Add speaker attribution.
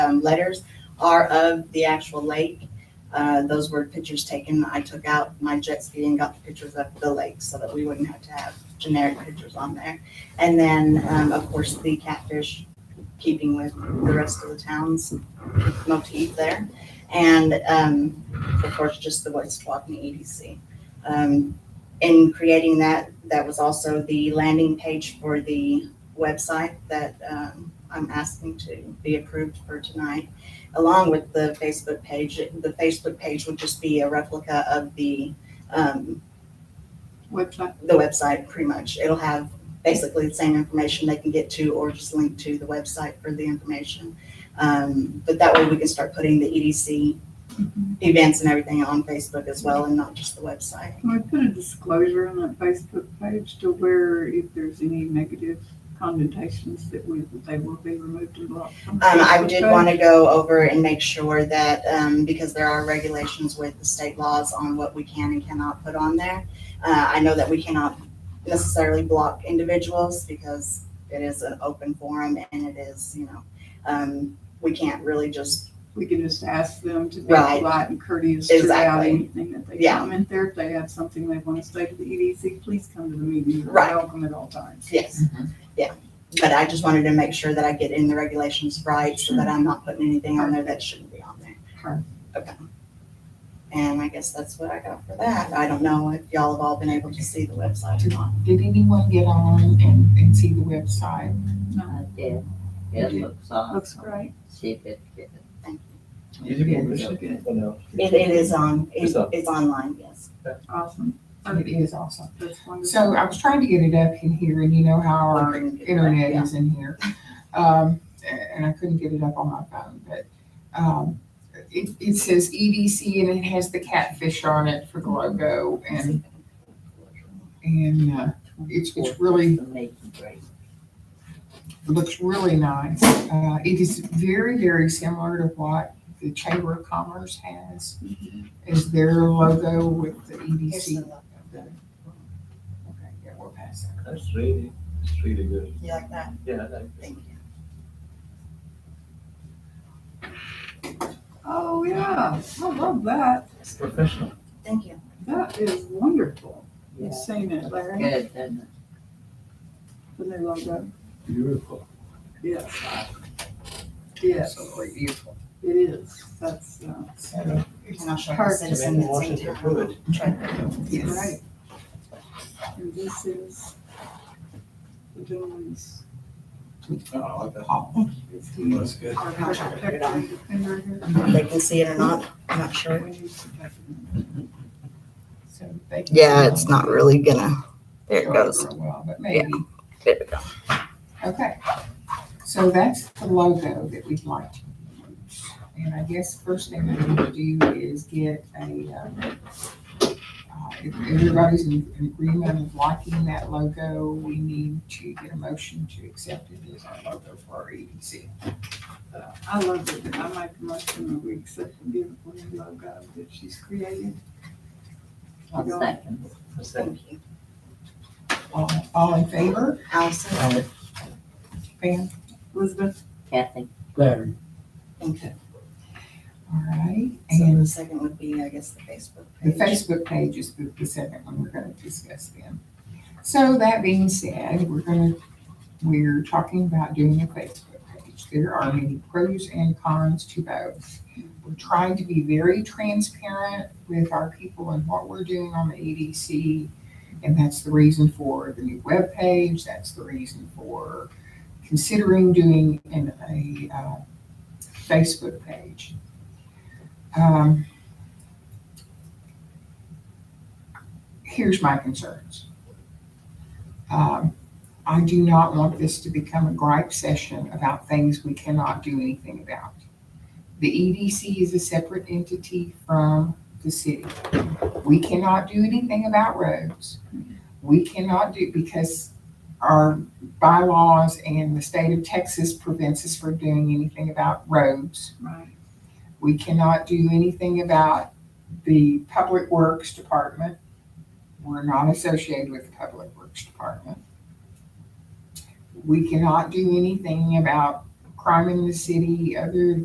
Speaker 1: um, letters are of the actual lake. Uh, those were pictures taken. I took out my jet ski and got the pictures of the lake so that we wouldn't have to have generic pictures on there. And then, um, of course, the catfish, keeping with the rest of the town's motif there. And, um, of course, just the Voice Walk and EDC. Um, in creating that, that was also the landing page for the website that, um, I'm asking to be approved for tonight, along with the Facebook page. The Facebook page would just be a replica of the, um,
Speaker 2: website.
Speaker 1: the website pretty much. It'll have basically the same information they can get to or just link to the website for the information. Um, but that way we can start putting the EDC events and everything on Facebook as well and not just the website.
Speaker 2: Can we put a disclosure on that Facebook page to where if there's any negative connotations that we, that they will be removed and blocked? from
Speaker 1: Um, I
Speaker 2: Facebook
Speaker 1: did
Speaker 2: page?
Speaker 1: want to go over and make sure that, um, because there are regulations with the state laws on what we can and cannot put on there. Uh, I know that we cannot necessarily block individuals because it is an open forum and it is, you know, um, we can't really just
Speaker 2: We can just ask them to be
Speaker 1: Right.
Speaker 2: polite and courteous throughout
Speaker 1: Exactly.
Speaker 2: anything that they
Speaker 1: Yeah.
Speaker 2: comment there. If they have something they want to say to the EDC, please come to the meeting. You're
Speaker 1: Right.
Speaker 2: Welcome at all times.
Speaker 1: Yes, yeah. But I just wanted to make sure that I get in the regulations right so that I'm not putting anything on there that shouldn't be on there.
Speaker 2: Sure.
Speaker 1: Okay. And I guess that's what I got for that. I don't know if y'all have all been able to see the website or not.
Speaker 3: Did anyone get on and, and see the website?
Speaker 4: I did. It looks
Speaker 2: Looks
Speaker 4: awesome.
Speaker 2: great.
Speaker 4: She did good.
Speaker 5: Did you
Speaker 3: Yeah,
Speaker 5: get
Speaker 3: we
Speaker 5: this?
Speaker 3: should get it.
Speaker 5: Oh, no.
Speaker 1: It, it is on, it-
Speaker 5: It's up.
Speaker 1: it's online, yes.
Speaker 2: Awesome.
Speaker 3: It is awesome.
Speaker 2: That's wonderful.
Speaker 3: So I was trying to get it up in here and you know how our internet
Speaker 1: Yeah.
Speaker 3: is in here. Um, and I couldn't get it up on my phone, but, um, it, it says EDC and it has the catfish on it for the logo and, and, uh, it's, it's really,
Speaker 4: The making great.
Speaker 3: looks really nice. Uh, it is very, very similar to what the Chamber of Commerce has is their logo with the
Speaker 1: Here's the
Speaker 3: EDC.
Speaker 1: logo.
Speaker 3: Okay, yeah, we'll pass that.
Speaker 5: That's really, it's really good.
Speaker 1: You like that?
Speaker 5: Yeah, I like that.
Speaker 1: Thank you.
Speaker 2: Oh, yeah. I love that.
Speaker 5: It's professional.
Speaker 1: Thank you.
Speaker 2: That is wonderful.
Speaker 4: Yeah.
Speaker 2: You've seen it, Larry,
Speaker 4: Good, doesn't
Speaker 2: the new logo.
Speaker 5: Beautiful.
Speaker 2: Yes. Yes,
Speaker 3: Absolutely beautiful.
Speaker 2: it is. That's, uh,
Speaker 3: So,
Speaker 1: And I'll show the
Speaker 2: Perfect.
Speaker 1: citizen that's in
Speaker 5: Washington Pruitt.
Speaker 1: town. Try-
Speaker 3: yes.
Speaker 2: Right. And this is the gentleman's
Speaker 5: I like that.
Speaker 3: Oh,
Speaker 5: That's good.
Speaker 2: architect
Speaker 1: on.
Speaker 2: defender here.
Speaker 1: if They can see it or not, I'm not sure.
Speaker 2: We need to type it in.
Speaker 3: so they can-
Speaker 1: really gonna, there
Speaker 3: Show for a while, But maybe,
Speaker 1: There we go.
Speaker 3: okay. So that's the logo that we'd like to use. And I guess first thing we need to do is get a, um, uh, if everybody's in in agreement of liking that logo, we need to get a motion to accept it as our logo for our E EDC.
Speaker 2: I love it. I make a motion that we accept the beautiful new logo that she's created.
Speaker 4: it? Second.
Speaker 5: That's that.
Speaker 1: Thank you.
Speaker 3: All all in favor?
Speaker 1: Allison?
Speaker 3: Fan?
Speaker 2: Elizabeth,
Speaker 4: Kathy.
Speaker 6: Larry,
Speaker 1: Thank you.
Speaker 3: All right,
Speaker 1: So the
Speaker 3: and
Speaker 1: second would be, I guess, the Facebook
Speaker 3: the
Speaker 1: page.
Speaker 3: Facebook page is the, the second one we're gonna discuss then. So that being said, we're gonna, we're talking about doing a Facebook page. There are many pros and cons to both. We're trying to be very transparent with our people and what we're doing on the EDC. And that's the reason for the new webpage, that's the reason for considering doing an, a, uh, Facebook page. Um, here's my concerns. Um, I do not want this to become a gripe session about things we cannot do anything about. The EDC is a separate entity from the city. We cannot do anything about roads. We cannot do, because our bylaws and the state of Texas prevents us from doing anything about roads.
Speaker 2: right,
Speaker 3: We cannot do anything about the Public Works Department. We're not associated with the Public Works Department. We cannot do anything about crime in the city other